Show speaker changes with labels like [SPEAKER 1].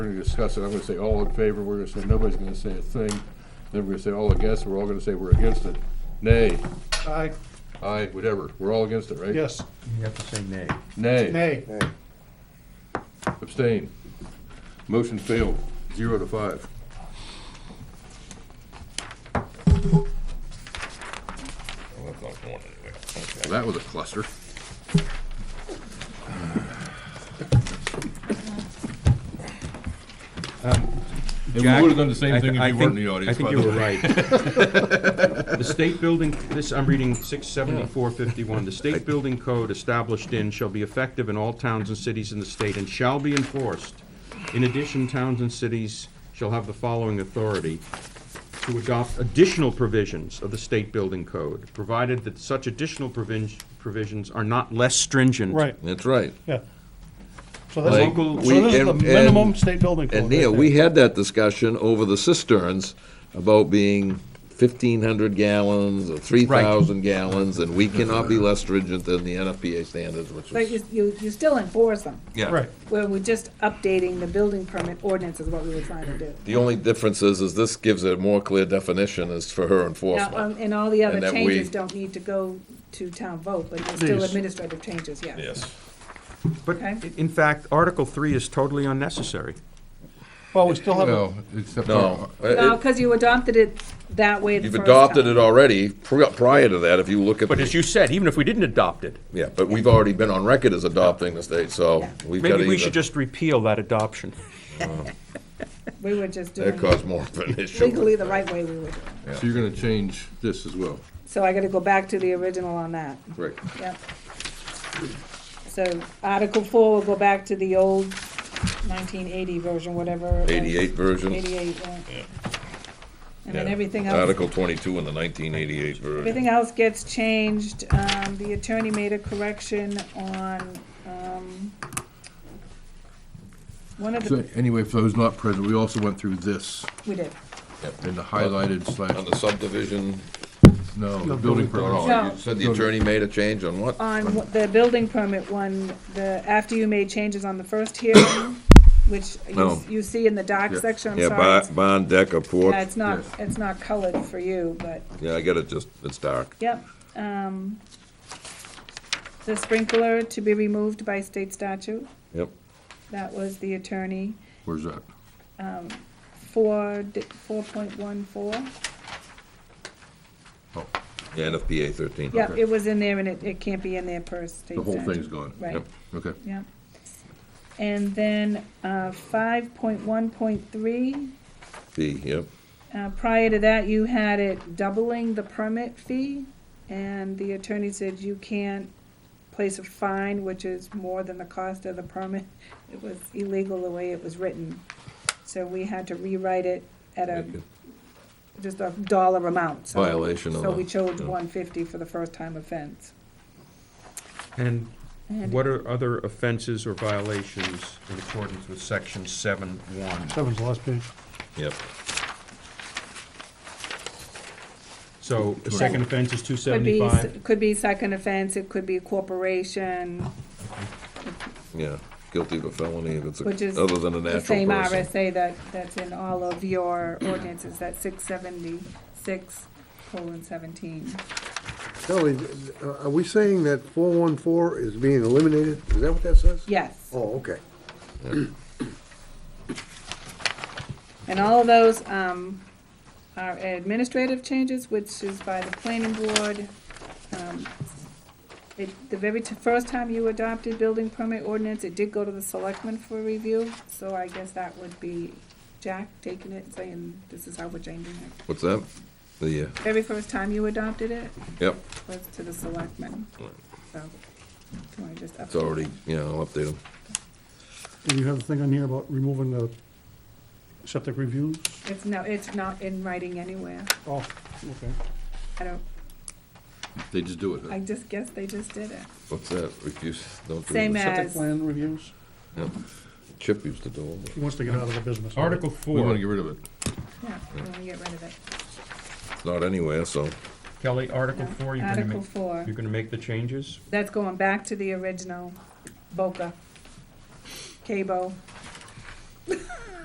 [SPEAKER 1] going to discuss it, I'm gonna say all in favor, we're gonna say, nobody's gonna say a thing, then we're gonna say all against, and we're all gonna say we're against it. Nay,
[SPEAKER 2] Aye,
[SPEAKER 1] aye, whatever, we're all against it, right?
[SPEAKER 2] yes,
[SPEAKER 3] You have to say nay.
[SPEAKER 1] Nay,
[SPEAKER 2] nay.
[SPEAKER 1] abstain. Motion failed, zero to five.
[SPEAKER 4] Well, that's not going anywhere. Okay.
[SPEAKER 1] Well, that was a cluster. And we
[SPEAKER 3] Jack,
[SPEAKER 1] would've done the same
[SPEAKER 3] Um, I
[SPEAKER 1] thing
[SPEAKER 3] th-
[SPEAKER 1] if
[SPEAKER 3] I
[SPEAKER 1] you weren't
[SPEAKER 3] think-
[SPEAKER 1] in the audience, by
[SPEAKER 3] I
[SPEAKER 1] the
[SPEAKER 3] think you
[SPEAKER 1] way.
[SPEAKER 3] were right. The state building, this, I'm reading six seventy-four fifty-one, the state building code established in shall be effective in all towns and cities in the state and shall be enforced. In addition, towns and cities shall have the following authority to adopt additional provisions of the state building code, provided that such additional provin- provisions are not less stringent.
[SPEAKER 2] Right,
[SPEAKER 4] That's right.
[SPEAKER 2] yeah. So
[SPEAKER 4] Like,
[SPEAKER 2] that's, so
[SPEAKER 3] Local-
[SPEAKER 4] we-
[SPEAKER 2] this is the
[SPEAKER 4] and-
[SPEAKER 2] minimum
[SPEAKER 4] and-
[SPEAKER 2] state building code.
[SPEAKER 4] And Neil,
[SPEAKER 2] right
[SPEAKER 4] we
[SPEAKER 2] there.
[SPEAKER 4] had that discussion over the cisterns about being fifteen hundred gallons or three thousand gallons, and we cannot be less stringent than the NFPA standards, which
[SPEAKER 5] But
[SPEAKER 4] is.
[SPEAKER 5] you, you, you still enforce them.
[SPEAKER 4] Yeah.
[SPEAKER 2] Right,
[SPEAKER 5] Well, we're just updating the building permit ordinance is what we were trying to do.
[SPEAKER 4] The only difference is, is this gives a more clear definition as for her
[SPEAKER 5] Now,
[SPEAKER 4] enforcement.
[SPEAKER 5] um, and all the other
[SPEAKER 4] And that
[SPEAKER 5] changes
[SPEAKER 4] we-
[SPEAKER 5] don't need to go to town vote, but it's still
[SPEAKER 2] These.
[SPEAKER 5] administrative changes, yes.
[SPEAKER 4] Yes.
[SPEAKER 3] But
[SPEAKER 5] Okay.
[SPEAKER 3] i- in fact, Article three is totally unnecessary.
[SPEAKER 2] well, we still have, a-
[SPEAKER 1] No, except. uh,
[SPEAKER 4] No. it-
[SPEAKER 5] No, because you adopted it that way the
[SPEAKER 4] You've
[SPEAKER 5] first
[SPEAKER 4] adopted
[SPEAKER 5] time.
[SPEAKER 4] it already, pri- prior to that, if you look at.
[SPEAKER 3] But
[SPEAKER 4] the-
[SPEAKER 3] as you said, even if we didn't adopt it,
[SPEAKER 4] Yeah, but we've already been on record as adopting the state, so we've got to.
[SPEAKER 3] maybe we should just repeal that adoption.
[SPEAKER 5] We were just
[SPEAKER 4] That
[SPEAKER 5] doing it
[SPEAKER 4] caused more of an issue.
[SPEAKER 5] legally the right way we were doing it.
[SPEAKER 1] So you're gonna change this as well.
[SPEAKER 5] So I gotta go back to the original on that,
[SPEAKER 4] Right.
[SPEAKER 5] yep. So Article four will go back to the old nineteen eighty version, whatever. it was.
[SPEAKER 4] Eighty-eight version.
[SPEAKER 5] Eighty-eight, yeah. And then
[SPEAKER 4] Yeah.
[SPEAKER 5] everything else.
[SPEAKER 4] Article twenty-two in the nineteen eighty-eight version.
[SPEAKER 5] Everything else gets changed. Um, the attorney made a correction on, um, one of
[SPEAKER 1] So
[SPEAKER 5] the,
[SPEAKER 1] anyway, for those not present, we also went through this
[SPEAKER 5] we did.
[SPEAKER 1] in the highlighted
[SPEAKER 4] On
[SPEAKER 1] slash,
[SPEAKER 4] the subdivision,
[SPEAKER 1] no, the building
[SPEAKER 4] no,
[SPEAKER 1] permit.
[SPEAKER 4] no,
[SPEAKER 5] No. Um,
[SPEAKER 4] you said the attorney made a change on what?
[SPEAKER 5] On w- the building permit one, the, after you made changes on the first hearing, which
[SPEAKER 4] No.
[SPEAKER 5] you, you see in the doc
[SPEAKER 1] Yeah.
[SPEAKER 5] section, I'm
[SPEAKER 4] Yeah,
[SPEAKER 5] sorry.
[SPEAKER 4] bond,
[SPEAKER 5] it's-
[SPEAKER 4] bond deck or porch.
[SPEAKER 5] Yeah, it's not,
[SPEAKER 1] Yes.
[SPEAKER 5] it's not colored for you, but,
[SPEAKER 4] Yeah, I get it, just, it's dark.
[SPEAKER 5] yep. Um, the sprinkler to be removed by state statute,
[SPEAKER 4] Yep.
[SPEAKER 5] that was the attorney.
[SPEAKER 1] Where's that?
[SPEAKER 5] Four, four point one four.
[SPEAKER 1] Oh,
[SPEAKER 4] Yeah, NFPA thirteen.
[SPEAKER 5] Yeah,
[SPEAKER 1] Okay.
[SPEAKER 5] it was in there and it, it can't be in there per state
[SPEAKER 1] the whole
[SPEAKER 5] statute.
[SPEAKER 1] thing's gone.
[SPEAKER 5] Right,
[SPEAKER 1] Okay.
[SPEAKER 5] yeah. And then, uh, five point one point three,
[SPEAKER 4] B, yep.
[SPEAKER 5] uh, prior to that, you had it doubling the permit fee. And the attorney said you can't place a fine, which is more than the cost of the permit. It was illegal the way it was written. So we had to rewrite it at a, just a dollar amount, so.
[SPEAKER 4] Violation of
[SPEAKER 5] So
[SPEAKER 4] the-
[SPEAKER 5] we chose
[SPEAKER 4] yeah.
[SPEAKER 5] one fifty for the first time offense.
[SPEAKER 3] And
[SPEAKER 5] And-
[SPEAKER 3] what are other offenses or violations in accordance with section seven one?
[SPEAKER 2] seven's the last page.
[SPEAKER 4] Yep.
[SPEAKER 3] So the second offense is two
[SPEAKER 5] Could be,
[SPEAKER 3] seventy-five?
[SPEAKER 5] could be second offense, it could be a corporation,
[SPEAKER 4] Yeah, guilty of a felony if it's,
[SPEAKER 5] which is.
[SPEAKER 4] a- other than a
[SPEAKER 5] The
[SPEAKER 4] natural
[SPEAKER 5] same
[SPEAKER 4] person.
[SPEAKER 5] RSA that, that's in all of your ordinances, that six seventy-six colon seventeen.
[SPEAKER 6] Kelly, uh, are we saying that 414 is being eliminated? Is that what that says?
[SPEAKER 5] Yes,
[SPEAKER 6] Oh, okay.
[SPEAKER 5] and all of those, um, are administrative changes, which is by the planning board. Um, It, the very t- first time you adopted building permit ordinance, it did go to the selectmen for review, so I guess that would be Jack taking it, saying, this is how we're changing it.
[SPEAKER 4] What's that? The, uh,
[SPEAKER 5] Very first time you adopted it
[SPEAKER 4] yep,
[SPEAKER 5] was to the selectmen, so, can I just?
[SPEAKER 4] it's already, you know, I'll update them.
[SPEAKER 2] And you have the thing on here about removing the septic reviews?
[SPEAKER 5] It's no, it's not in writing anywhere,
[SPEAKER 2] Oh, okay.
[SPEAKER 5] I don't,
[SPEAKER 1] They just do it. huh?
[SPEAKER 5] I just guess they just did it.
[SPEAKER 4] What's that? Refuse, don't do
[SPEAKER 5] Same
[SPEAKER 4] it.
[SPEAKER 5] as-
[SPEAKER 2] Septic plan reviews,
[SPEAKER 4] Yep. Chip used to do them.
[SPEAKER 2] he wants to get out of the business.
[SPEAKER 3] Article
[SPEAKER 1] We wanna
[SPEAKER 3] four,
[SPEAKER 1] get rid of it.
[SPEAKER 5] Yeah, we wanna get rid of it.
[SPEAKER 4] It's not anywhere, so.
[SPEAKER 3] Kelly, Article
[SPEAKER 5] No.
[SPEAKER 3] four, you're gonna
[SPEAKER 5] Article
[SPEAKER 3] make,
[SPEAKER 5] four,
[SPEAKER 3] you're gonna make the changes?
[SPEAKER 5] that's going back to the original Boca, Cabo.